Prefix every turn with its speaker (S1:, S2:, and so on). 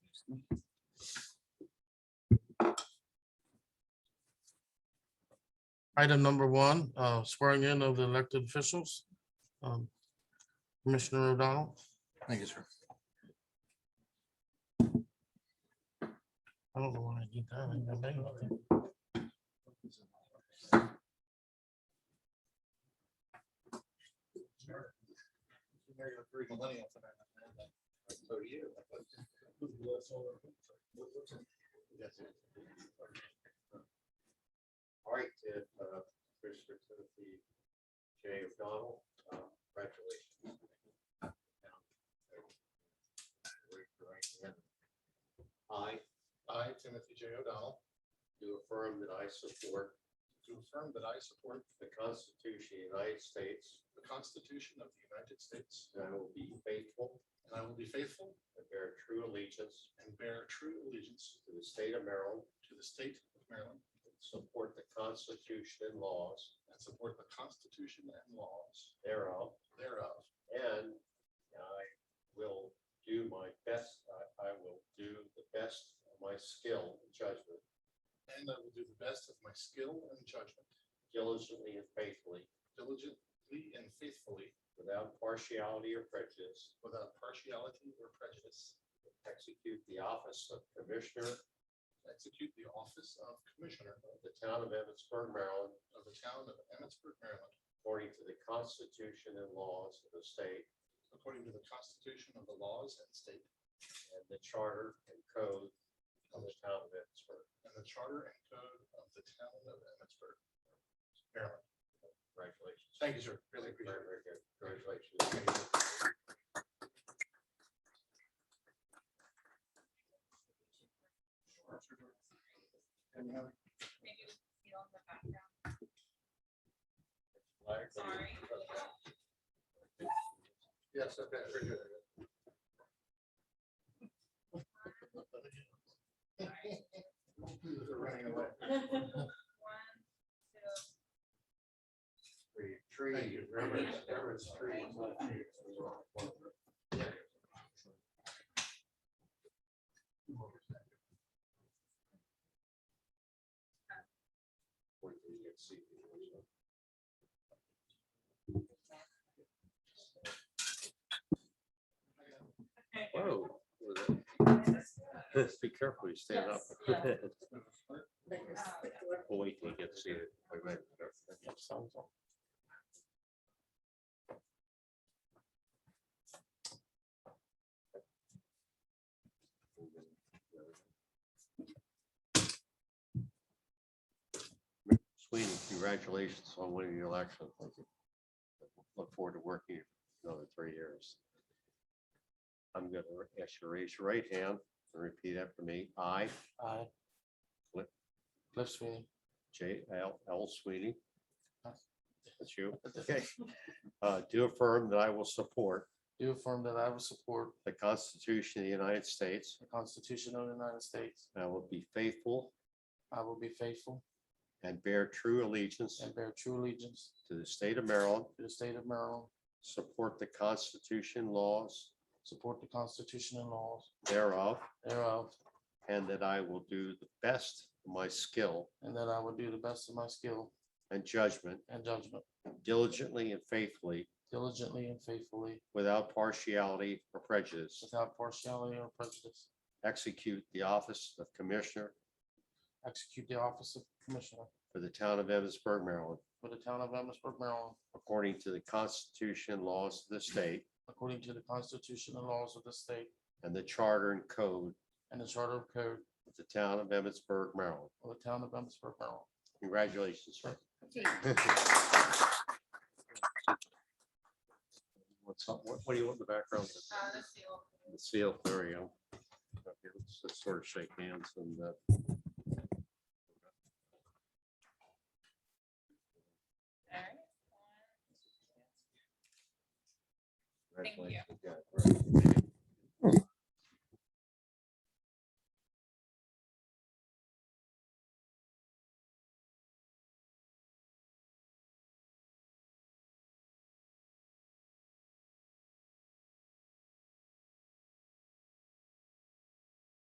S1: Item number one, uh, swearing in of the elected officials. Um, Commissioner O'Donnell,
S2: Thank you, sir.
S1: I don't know why I did that. I got that up there.
S3: All right, and, uh, Commissioner Timothy J. O'Donnell, uh, congratulations. Raise your right hand. I. I, Timothy J. O'Donnell. Do affirm that I support. Do affirm that I support. The Constitution of the United States. The Constitution of the United States. And I will be faithful. And I will be faithful. And bear true allegiance. And bear true allegiance. To the state of Maryland. To the state of Maryland. Support the Constitution and laws. And support the Constitution and laws. Thereof. Thereof. And I will do my best, I, I will do the best of my skill and judgment. And I will do the best of my skill and judgment. Diligently and faithfully. Diligently and faithfully. Without partiality or prejudice. Without partiality or prejudice. Execute the office of Commissioner Execute the office of Commissioner. Of the town of Emmitsburg, Maryland. Of the town of Emmitsburg, Maryland. According to the Constitution and laws of the state. According to the Constitution of the laws and state. And the charter and code of the town of Emmitsburg. And the charter and code of the town of Emmitsburg, Maryland. Congratulations. Thank you, sir. Really appreciate it. Very good. Congratulations. Any other
S4: Maybe we can see on the background.
S3: flags?
S4: Sorry.
S3: Yes, okay, very good. They're running away.
S4: One, two,
S3: Tree, tree, Reverend, Reverend's tree. is not tree, it's a rock. Wait till you get seated.
S5: Whoa.
S3: Oh, Be careful, you stand up.
S4: Yes,
S3: We'll Wait till you get seated. Wait, wait. Sweeney, congratulations on winning the election. Thank you. Look forward to working you for another three years. I'm going to ask you to raise your right hand and repeat after me. I,
S1: Aye.
S3: What?
S1: Cliff Sweeney.
S3: J. L. L. Sweeney. That's you. Okay. Uh, Do affirm that I will support
S1: Do affirm that I will support
S3: the Constitution of the United States.
S1: the Constitution of the United States.
S3: and I will be faithful
S1: I will be faithful
S3: and bear true allegiance
S1: and bear true allegiance
S3: to the state of Maryland.
S1: to the state of Maryland,
S3: Support the Constitution laws
S1: support the Constitution and laws
S3: thereof,
S1: thereof,
S3: and that I will do the best of my skill
S1: and that I will do the best of my skill
S3: and judgment
S1: and judgment
S3: diligently and faithfully
S1: diligently and faithfully
S3: without partiality or prejudice.
S1: without partiality or prejudice,
S3: Execute the office of Commissioner
S1: execute the office of Commissioner
S3: for the town of Evansburg, Maryland.
S1: for the town of Amherstburg, Maryland,
S3: According to the Constitution, and laws of the state,
S1: according to the Constitution and laws of the state
S3: and the Charter and Code
S1: and the Charter of Code
S3: of the Town of Emmitsburg, Maryland.
S1: of the town of Amherstburg, Maryland.
S3: Congratulations, sir. What's up? What what do you want in the background?
S4: uh, that's the old.
S3: The seal, there you go. Okay, Let's just sort of shake hands and uh,
S4: All right. One, two. Thank you.
S3: congratulations. again.